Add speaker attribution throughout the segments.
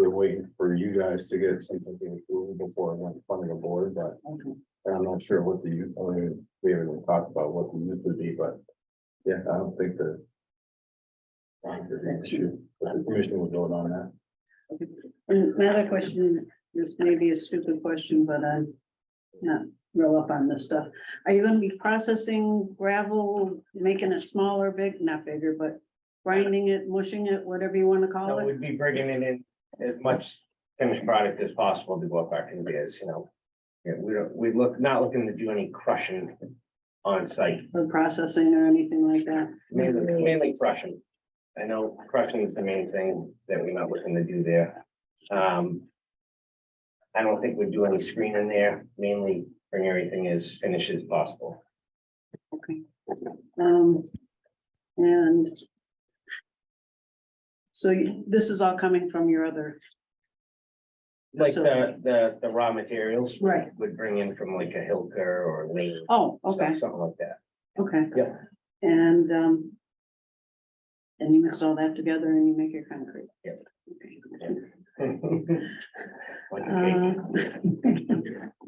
Speaker 1: waiting for you guys to get something approved before I went in front of the board, but I'm not sure what the, use- I mean, we haven't even talked about what the use would be, but yeah, I don't think the I don't think the issue, but the commission will vote on that.
Speaker 2: Another question, this may be a stupid question, but I'm not real up on this stuff. Are you gonna be processing gravel, making it smaller, big, not bigger, but grinding it, mushing it, whatever you wanna call
Speaker 3: No,
Speaker 2: it?
Speaker 3: we'd be bringing it in as much finished product as possible to what our can be is, you know. Yeah, we don't, we look, not looking to do any crushing on site,
Speaker 2: Or processing or anything like that?
Speaker 3: mainly, mainly crushing. I know crushing is the main thing that we're not looking to do there. Um. I don't think we'd do any screening there, mainly bring everything as finished as possible.
Speaker 2: Okay. Um, and so you- this is all coming from your other,
Speaker 3: Like
Speaker 2: So-
Speaker 3: the, the, the raw materials
Speaker 2: right?
Speaker 3: would bring in from like a Hilker or Lane,
Speaker 2: Oh, okay,
Speaker 3: something like that.
Speaker 2: okay.
Speaker 3: Yeah.
Speaker 2: And, um, and you mix all that together and you make your concrete?
Speaker 3: Yeah.
Speaker 2: Okay.
Speaker 3: Like a
Speaker 2: Uh,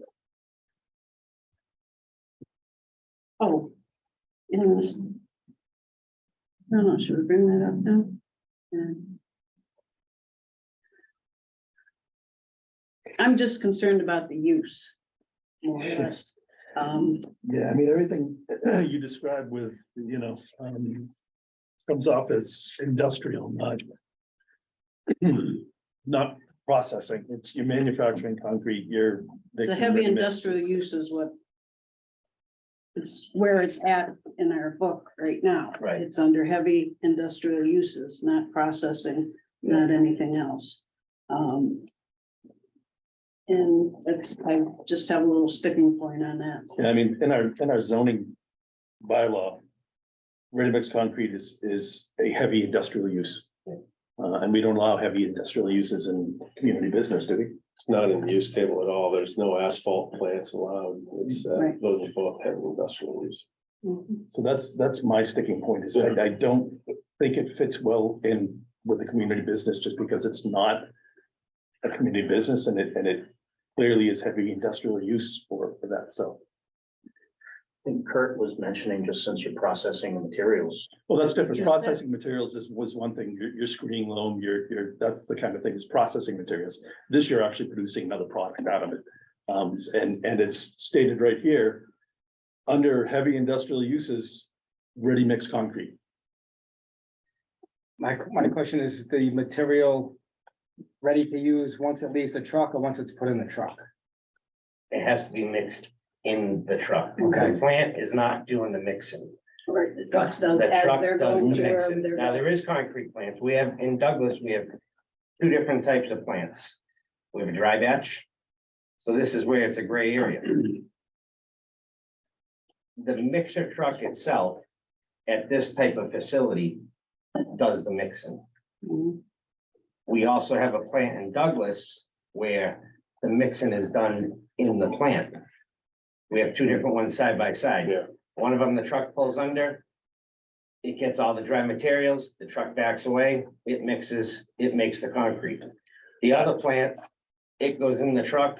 Speaker 2: Oh. In this. No, no, should we bring that up now? Um, I'm just concerned about the use. More or less. Um,
Speaker 4: Yeah, I mean, everything you described with, you know, um, comes off as industrial, not not processing. It's you're manufacturing concrete, you're.
Speaker 2: it's a heavy industrial use is what. It's where it's at in our book right now.
Speaker 3: Right.
Speaker 2: It's under heavy industrial uses, not processing, not anything else. Um. And it's, I just have a little sticking point on that.
Speaker 4: Yeah, I mean, in our, in our zoning bylaw, ready-mix concrete is, is a heavy industrial use.
Speaker 3: Yeah.
Speaker 4: Uh, and we don't allow heavy industrial uses in community business, do we?
Speaker 5: It's not in the use table at all. There's no asphalt plants allowed. It's, uh,
Speaker 2: Right.
Speaker 5: those are both heavy industrial use.
Speaker 6: Mm-hmm.
Speaker 4: So that's, that's my sticking point is I, I don't think it fits well in with the community business just because it's not a community business and it, and it clearly is heavy industrial use for, for that. So,
Speaker 7: I think Kurt was mentioning, just since you're processing the materials,
Speaker 4: well, that's different.
Speaker 2: Just that-
Speaker 4: Processing materials is, was one thing. Your, your screening loam, your, your, that's the kind of thing is processing materials. This year actually producing another product out of it. Um, and, and it's stated right here, under heavy industrial uses, ready mix concrete.
Speaker 8: My, my question is the material ready to use once it leaves the truck or once it's put in the truck?
Speaker 3: It has to be mixed in the truck.
Speaker 8: Okay.
Speaker 3: The Plant is not doing the mixing.
Speaker 2: Or the
Speaker 3: The
Speaker 2: trucks does as
Speaker 3: truck
Speaker 2: they're
Speaker 3: does the
Speaker 2: going to
Speaker 3: mixing.
Speaker 2: wherever they're
Speaker 3: Now,
Speaker 2: going.
Speaker 3: there is concrete plants. We have, in Douglas, we have two different types of plants. We have a dry batch. So this is where it's a gray area. The mixer truck itself at this type of facility does the mixing.
Speaker 6: Mm-hmm.
Speaker 2: Mhm.
Speaker 3: We also have a plant in Douglas where the mixing is done in the plant. We have two different ones side by side.
Speaker 5: Yeah.
Speaker 3: One of them, the truck pulls under. It gets all the dry materials, the truck backs away, it mixes, it makes the concrete. The other plant, it goes in the truck.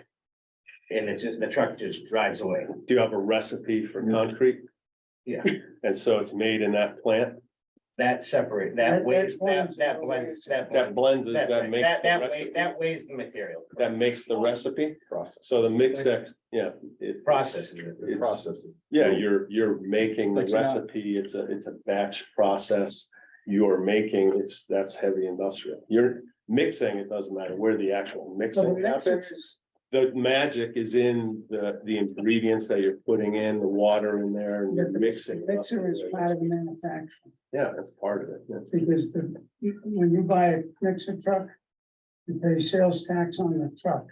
Speaker 3: And it's just, the truck just drives away.
Speaker 5: Do you have a recipe for concrete?
Speaker 3: Yeah.
Speaker 5: And so it's made in that plant
Speaker 3: That separate,
Speaker 8: That-
Speaker 3: that weighs,
Speaker 8: that blends
Speaker 3: that, that
Speaker 8: the
Speaker 3: blends, that
Speaker 5: that blends,
Speaker 3: blends.
Speaker 5: is
Speaker 3: That,
Speaker 5: that makes
Speaker 3: that,
Speaker 5: the
Speaker 3: that weigh-
Speaker 5: recipe.
Speaker 3: that weighs the material.
Speaker 5: That makes the recipe.
Speaker 1: Process,
Speaker 5: So the mix that, yeah. it-
Speaker 3: Processes it.
Speaker 5: It's-
Speaker 1: process.
Speaker 5: Yeah, you're, you're making the
Speaker 8: But you're not-
Speaker 5: recipe. It's a, it's a batch process. You're making, it's, that's heavy industrial. You're mixing, it doesn't matter where the actual mixing happens. the magic is in the, the ingredients that you're putting in, the water in there and you're mixing. it up.
Speaker 6: Mixer is part of the manufacturing,
Speaker 5: Yeah, that's part of it. yeah.
Speaker 6: because the, you- when you buy a mixer truck, you pay sales tax on the truck.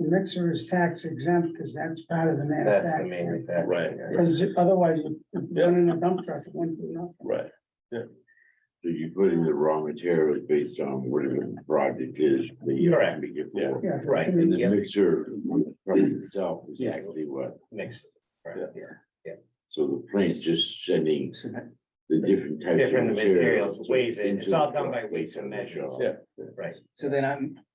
Speaker 6: The mixer is tax exempt, because that's part of the
Speaker 3: That's the
Speaker 6: manufacturing.
Speaker 3: main thing.
Speaker 5: Right.
Speaker 6: Because otherwise, if you run in a dump truck, it wouldn't be enough.
Speaker 5: Right.
Speaker 9: So you put in the raw materials based on whatever the project is that you're
Speaker 3: Correct.
Speaker 9: having it
Speaker 5: Yeah.
Speaker 9: for.
Speaker 6: Yeah.
Speaker 3: Right.
Speaker 9: And the
Speaker 3: Yeah.
Speaker 9: mixer from itself is actually what,
Speaker 3: Mix. Right,
Speaker 5: Yeah.
Speaker 3: yeah.
Speaker 9: so the plane's just sending the different types of
Speaker 3: Different
Speaker 9: materials.
Speaker 3: materials, weighs it,
Speaker 9: into
Speaker 3: it's all
Speaker 9: the
Speaker 3: done by
Speaker 9: truck
Speaker 3: weights and
Speaker 9: based on the
Speaker 3: measures.
Speaker 9: job.
Speaker 5: Yeah.
Speaker 3: Right.
Speaker 8: So then I'm,